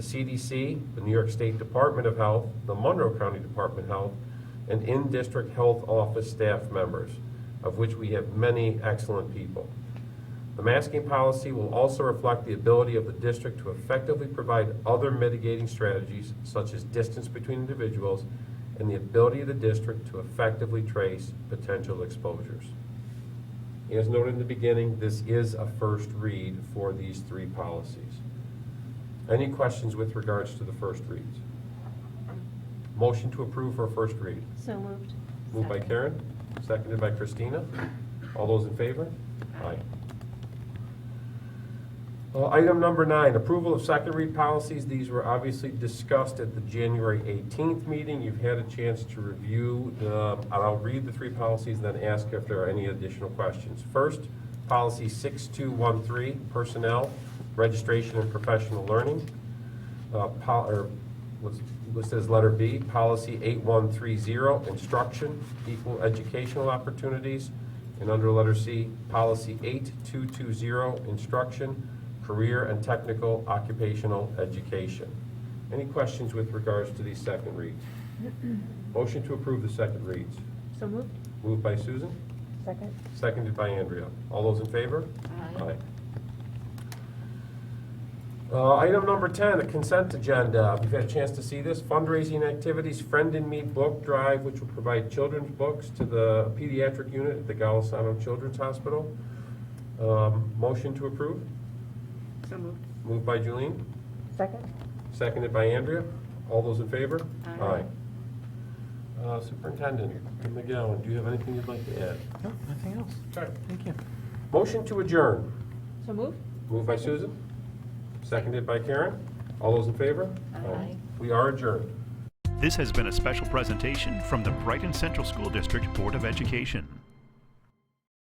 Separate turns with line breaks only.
the CDC, the New York State Department of Health, the Monroe County Department of Health, and in-district health office staff members, of which we have many excellent people. The masking policy will also reflect the ability of the district to effectively provide other mitigating strategies such as distance between individuals and the ability of the district to effectively trace potential exposures. As noted in the beginning, this is a first read for these three policies. Any questions with regards to the first reads? Motion to approve for first read.
So moved.
Moved by Karen, seconded by Christina. All those in favor? Aye. Uh, Item number nine, approval of second read policies. These were obviously discussed at the January 18th meeting. You've had a chance to review, the- and I'll read the three policies and then ask if there are any additional questions. First, policy 6213, personnel, registration and professional learning. Uh, pol- or what's listed as letter B, policy 8130, instruction, equal educational opportunities. And under letter C, policy 8220, instruction, career and technical occupational education. Any questions with regards to these second reads? Motion to approve the second reads.
So moved.
Moved by Susan,
Second.
seconded by Andrea. All those in favor? Aye. Uh, Item number 10, the consent agenda. If you've had a chance to see this, fundraising activities, Friend and Me Book Drive, which will provide children's books to the pediatric unit at the Golisano Children's Hospital. Um, Motion to approve,
So moved.
moved by Julian,
Second.
seconded by Andrea. All those in favor?
Aye.
Aye. Uh, Superintendent McGowan, do you have anything you'd like to add?
No, nothing else. Thank you.
Motion to adjourn.
So moved?
Moved by Susan, seconded by Karen. All those in favor?
Aye.
We are adjourned.
This has been a special presentation from the Brighton Central School District Board of Education.